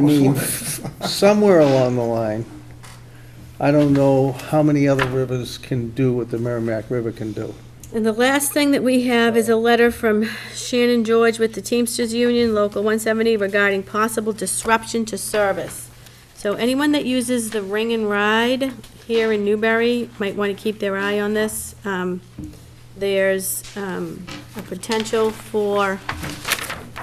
I mean, somewhere along the line, I don't know how many other rivers can do what the Merrimack River can do. And the last thing that we have is a letter from Shannon George with the Teamsters Union, Local 170, regarding possible disruption to service. So anyone that uses the Ring and Ride here in Newbury might want to keep their eye on this. Um, There's um, a potential for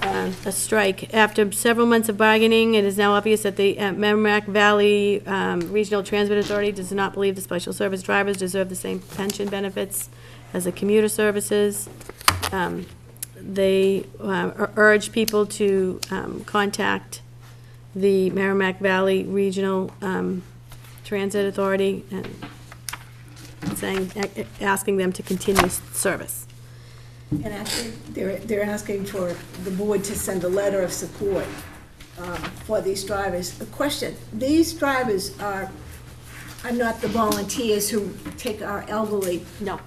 uh, a strike. After several months of bargaining, it is now obvious that the uh, Merrimack Valley um, Regional Transit Authority does not believe the special service drivers deserve the same pension benefits as the commuter services. Um, They uh, ur- urge people to um, contact the Merrimack Valley Regional um, Transit Authority and saying, asking them to continue service. And actually, they're, they're asking for the board to send a letter of support um, for these drivers. A question, these drivers are, are not the volunteers who take our elderly, No.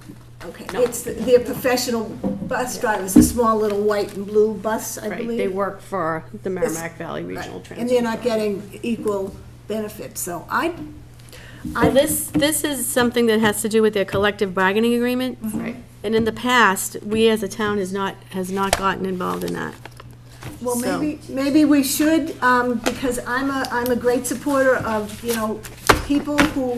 okay? It's, the- they're professional bus drivers, the small little white and blue bus, I Right, believe. they work for the Merrimack Valley Right. Regional And they're Transit. not getting equal benefits, so I, Well, this, this is something that has to do with their collective bargaining agreement. Right. And in the past, we as a town has not, has not gotten involved in that. Well, So- maybe, maybe we should, um, because I'm a, I'm a great supporter of, you know, people who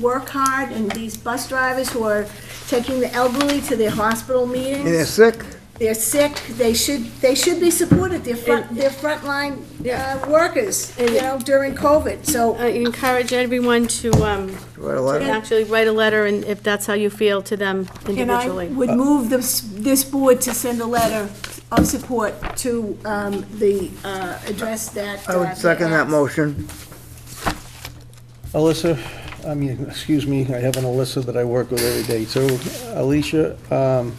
work hard and these bus drivers who are taking the elderly to their hospital meetings. They're sick, They're sick, they should, they should be supported, they're front, And- they're frontline, Yeah. uh, workers, you And- know, during COVID, so. I encourage everyone to, um, write a letter. actually write a letter and if that's how you feel to them And I individually. Uh, would move this, this board to send a letter of support to, um, the, uh, address that. I uh, would second that motion. Alyssa, I mean, excuse me, I have an Alyssa that I work with every day, so Alicia, um,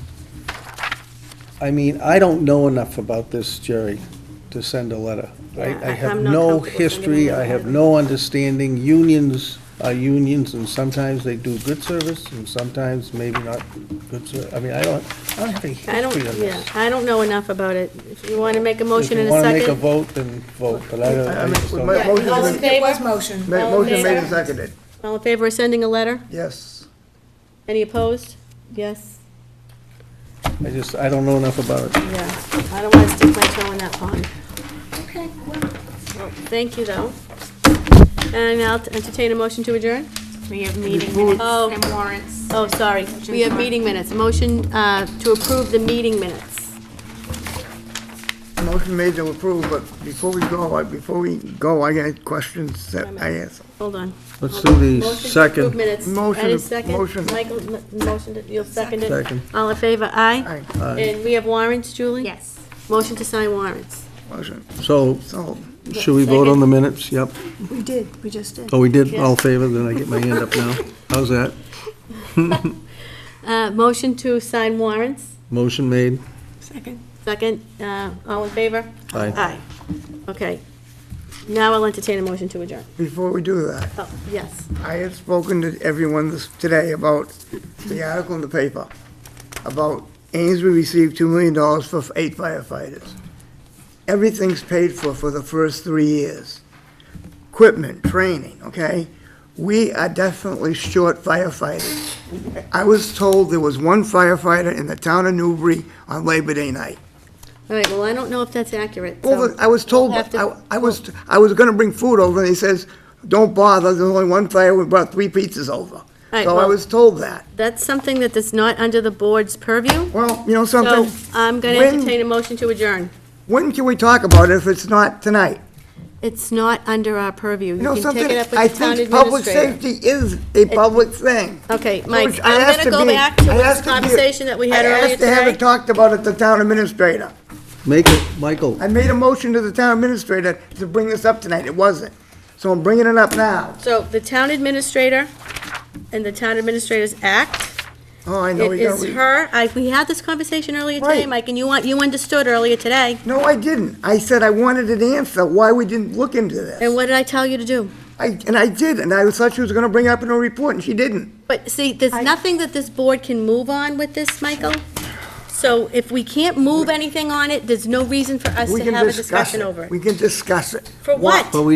I mean, I don't know enough about this, Jerry, to send a letter. Yeah, I, I I- have I'm not no comfortable sending history, another I have letter. no understanding. Unions are unions, and sometimes they do good service, and sometimes maybe not good ser, I mean, I don't, I don't have any I don't, history on yeah, this. I don't know enough about it. If you want to make a motion in a If you second. want to make a vote, then vote, but I don't, I Uh, just don't. My Yeah, motion all in is- It was favor? motion. Ma- All in Motion made favor? and seconded, All in favor of sending a letter? yes. Any opposed? Yes? I just, I don't know enough about it. Yeah. I don't want to stick my toe in that pond. Okay. Thank you, though. And I'll entertain a motion to adjourn? We have meeting minutes Oh. and warrants. Oh, sorry, we have meeting minutes. Motion uh, to approve the meeting minutes. Motion made to approve, but before we go, I- before we go, I got questions that I asked. Hold on. Let's Hold on. do the Motion to second. approve minutes. Motion, Any second? motion. Michael, m- motion, you'll second it? Second. All in favor, aye? Aye. And we have warrants, Julie? Yes. Motion to sign warrants. Motion, So, so, should we vote on the minutes? Yep. We did, we just did. Oh, we did, all Yes. favor, then I get my hand up now. How's that? Uh, Motion to sign warrants, Motion made. Second. second, uh, all in favor? Aye. Aye. Okay. Now I'll entertain a motion to adjourn. before we do that, Oh, yes. I had spoken to everyone this, today about the article in the paper, about Amesbury received two million dollars for eight firefighters. Everything's paid for for the first three years. Equipment, training, okay? We are definitely short firefighters. I was told there was one firefighter in the town of Newbury on Labor Day night. All right, well, I don't know if that's accurate, so- Well, I was told, We'll have to- I, I was, I was gonna bring food over, and he says, don't bother, there's only one fire, we brought three pizzas over. right, So I well- was told that. That's something that is not under the board's purview, Well, you know so something? I'm going to When- entertain a motion to adjourn. When can we talk about it if it's not tonight? It's not under our purview. You know You can something? take it up I with the town think public administrator. safety is a public thing. Okay, So Mike, it's- I I'm have going to go be- back to I have this be- conversation that we had I earlier asked to have it today. talked about at the town administrator. Make it, Michael, I made a motion to the town administrator to bring this up tonight, it wasn't. So I'm bringing it up now. So the town administrator and the town administrators act. Oh, I know It we got. is her, I, we had this conversation earlier today, Right. Mike, and you want, you understood earlier today. No, I didn't. I said I wanted an answer, why we didn't look into And this. what did I tell you to do? I, and I did, and I thought she was gonna bring it up in her report, and she didn't. But see, there's nothing that this board can move on with this, Michael. So if we can't move anything on it, there's no reason for us We to can have a discussion it. over it. We can discuss it. For what? But we